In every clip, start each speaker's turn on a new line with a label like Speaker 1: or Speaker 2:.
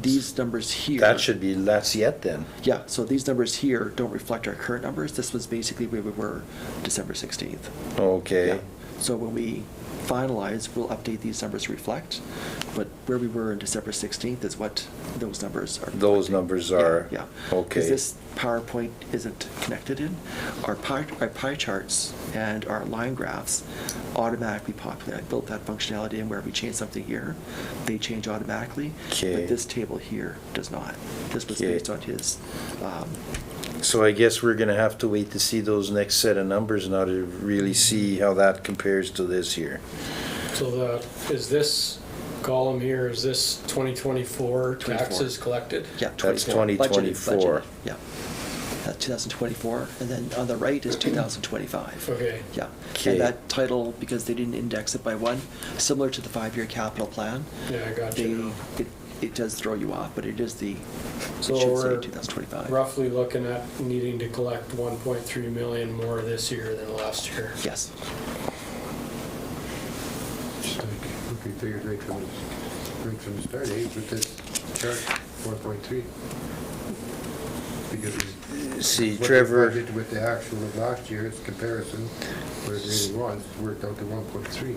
Speaker 1: these numbers here.
Speaker 2: That should be less yet then.
Speaker 1: Yeah, so these numbers here don't reflect our current numbers. This was basically where we were December 16th. Yeah.
Speaker 2: Okay.
Speaker 1: So when we finalize, we'll update these numbers to reflect, but where we were on December 16th is what those numbers are.
Speaker 2: Those
Speaker 1: reflecting.
Speaker 2: numbers
Speaker 1: Yeah,
Speaker 2: are-
Speaker 1: Yeah.
Speaker 2: okay.
Speaker 1: Because this PowerPoint isn't connected in. Our pie, our pie charts and our line graphs automatically populate. I built that functionality in where we change something here, they change automatically.
Speaker 2: Okay.
Speaker 1: But this table here does not. This was
Speaker 2: Okay.
Speaker 1: based on his, um,
Speaker 2: So I guess we're gonna have to wait to see those next set of numbers now to really see how that compares to this year.
Speaker 3: So the, is this column here, is this 2024 taxes collected?
Speaker 1: Yeah.
Speaker 2: That's
Speaker 1: 24. Budgeted, budgeted,
Speaker 2: 2024.
Speaker 1: Yeah. That's 2024, and then on the right is 2025.
Speaker 3: Okay.
Speaker 1: Yeah.
Speaker 2: Okay.
Speaker 1: And that title, because they didn't index it by one, similar to the five-year capital plan.
Speaker 3: Yeah, I got
Speaker 1: They,
Speaker 3: you.
Speaker 1: it, it does throw you off, but it is the, it
Speaker 3: So
Speaker 1: should say
Speaker 3: we're
Speaker 1: 2025.
Speaker 3: Roughly looking at needing to collect 1.3 million more this year than last year.
Speaker 1: Yes.
Speaker 4: We can figure it right from, the- right from the start, eh, with this chart, four point three. Because we-
Speaker 2: See,
Speaker 4: what they
Speaker 2: Trevor,
Speaker 4: budgeted With the actual of last year's comparison, where it really was, worked out to one point three.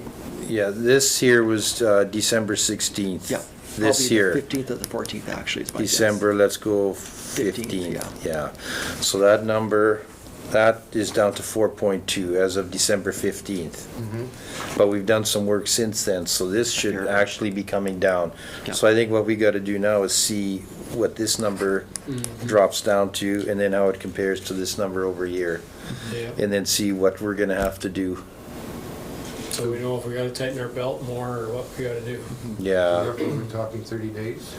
Speaker 2: yeah, this here was uh, December 16th.
Speaker 1: Yeah.
Speaker 2: This
Speaker 1: Probably the
Speaker 2: year.
Speaker 1: 15th or the 14th, actually, is my guess.
Speaker 2: December, let's go
Speaker 1: 15th,
Speaker 2: 15, yeah. So that number, that is down to 4.2 as of December 15th.
Speaker 4: Mm-hmm.
Speaker 2: But we've done some work since then, so this should
Speaker 1: Here.
Speaker 2: actually be coming down.
Speaker 1: Yeah.
Speaker 2: So I think what we got to do now is see what this number
Speaker 1: Mm-hmm.
Speaker 2: drops down to and then how it compares to this number over here.
Speaker 3: Yeah.
Speaker 2: And then see what we're going to have to do.
Speaker 3: So we know if we gotta tighten our belt more or what we gotta do.
Speaker 1: Mm-hmm.
Speaker 2: Yeah,
Speaker 1: Uh,
Speaker 4: Roughly, we're talking thirty days.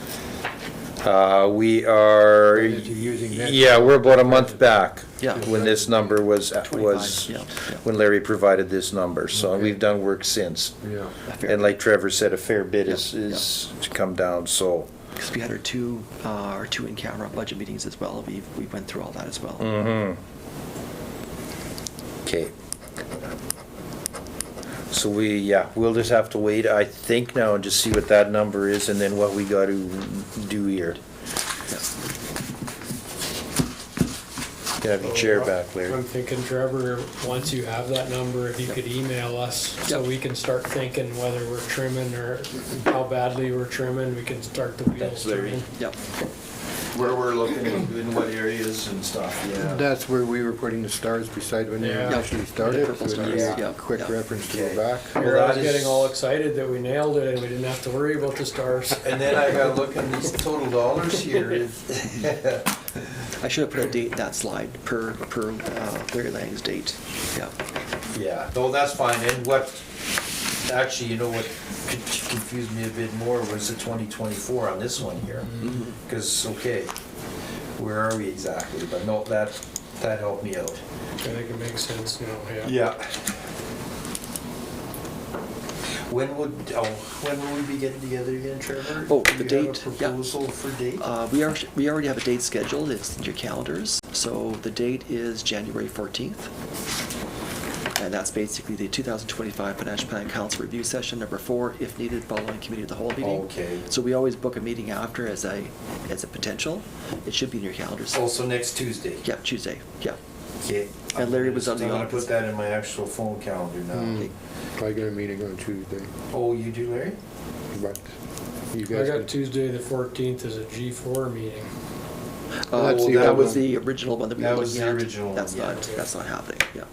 Speaker 2: Uh, we are,
Speaker 4: And if you're using that-
Speaker 2: yeah, we're about a month back.
Speaker 1: Yeah.
Speaker 2: When this number was, was,
Speaker 1: 25, yeah, yeah.
Speaker 2: when Larry provided this number, so
Speaker 4: Okay.
Speaker 2: we've done work since.
Speaker 4: Yeah.
Speaker 1: A fair bit.
Speaker 2: And like Trevor said, a fair bit is,
Speaker 1: Yeah, yeah.
Speaker 2: is to come down, so.
Speaker 1: Because we had our two, uh, our two in-camera budget meetings as well. We, we went through all that as well.
Speaker 2: Mm. Mm-hmm. Okay. So we, yeah, we'll just have to wait, I think now, and just see what that number is and then what we gotta do here.
Speaker 1: Yes.
Speaker 2: Can I have your chair back, Larry?
Speaker 3: I'm thinking Trevor, once you have that number, if you could email us so
Speaker 1: Yeah.
Speaker 3: we can start thinking whether we're trimming or how badly we're trimming, we can start the wheels
Speaker 2: Thanks, Larry.
Speaker 3: turning.
Speaker 1: Yep.
Speaker 2: Where we're looking, in what areas and stuff,
Speaker 4: That's where we were putting the stars beside when they
Speaker 3: Yeah.
Speaker 4: actually started.
Speaker 1: Purple
Speaker 4: so it'd be
Speaker 1: stars,
Speaker 4: a
Speaker 1: yeah,
Speaker 4: Quick
Speaker 1: yeah.
Speaker 4: reference to
Speaker 2: Okay.
Speaker 4: go back.
Speaker 3: Here I was
Speaker 2: that is-
Speaker 3: getting all excited that we nailed it and we didn't have to worry about the stars.
Speaker 2: And then I got looking these total dollars here.
Speaker 1: I should have put a date in that slide per, per uh, Larry Lang's date. Yeah.
Speaker 2: Yeah, no, that's fine, and what, actually, you know what con- confused me a bit more was the twenty twenty-four on this one here. Cause, okay, where are we exactly, but no, that, that helped me out.
Speaker 3: I think it makes sense now, yeah.
Speaker 2: When would, oh, when will we be getting together again, Trevor?
Speaker 1: Oh,
Speaker 2: Do
Speaker 1: the
Speaker 2: you have a
Speaker 1: date, yeah.
Speaker 2: Proposal for date?
Speaker 1: Uh, we are, we already have a date scheduled, it's in your calendars, so the date is January fourteenth. And that's basically the two thousand twenty-five financial plan council review session, number four, if needed, following committee of the whole meeting.
Speaker 2: Okay.
Speaker 1: So we always book a meeting after as a, as a potential, it should be in your calendars.
Speaker 2: Also Oh, next Tuesday?
Speaker 1: Yeah, Tuesday, yeah.
Speaker 2: Okay.
Speaker 1: And Larry was on the
Speaker 2: I'm gonna
Speaker 1: office.
Speaker 2: put that in my actual phone calendar now.
Speaker 4: Mm. I got a meeting on Tuesday,
Speaker 2: Oh, you do, Larry?
Speaker 4: but you
Speaker 3: I
Speaker 4: guys.
Speaker 3: got
Speaker 4: can-
Speaker 3: Tuesday, the fourteenth is a G four meeting.
Speaker 1: Uh,
Speaker 4: That's the
Speaker 1: that was
Speaker 4: original.
Speaker 1: the original one that we were
Speaker 2: That was
Speaker 1: looking at.
Speaker 2: the original one,
Speaker 1: That's
Speaker 2: yeah.
Speaker 1: not, that's not happening, yeah,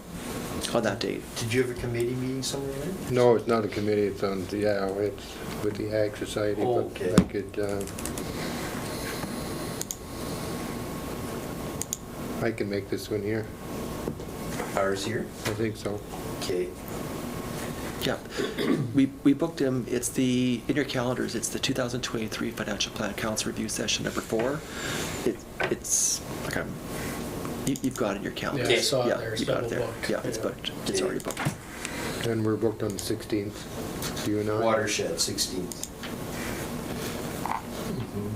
Speaker 1: on that date.
Speaker 2: Did you have a committee meeting somewhere, Larry?
Speaker 4: No, it's not a committee, it's on, yeah, it's with the Ag Society,
Speaker 2: Okay.
Speaker 4: but I could, uh, I can make this one here,
Speaker 2: Ours here?
Speaker 4: I think so.
Speaker 2: Okay.
Speaker 1: Yeah, we, we booked him, it's the, in your calendars, it's the 2023 Financial Plan Council Review Session Number Four. It, it's, like I'm, you, you've got it in your calendar.
Speaker 3: Yeah, I saw it there. It's
Speaker 1: you got it
Speaker 3: double
Speaker 1: there.
Speaker 3: booked.
Speaker 1: Yeah, it's
Speaker 3: Yeah.
Speaker 1: booked, it's
Speaker 2: Yeah.
Speaker 1: already booked.
Speaker 4: And we're booked on the 16th, you and I.
Speaker 2: Watershed, 16th. Mm-hmm.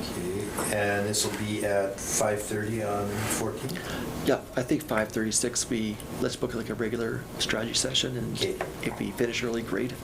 Speaker 2: Okay, and this will be at 5:30 on 14th?
Speaker 1: Yeah, I think 5:36, we, let's book like a regular strategy session, and
Speaker 2: Okay.
Speaker 1: if we finish early, great, If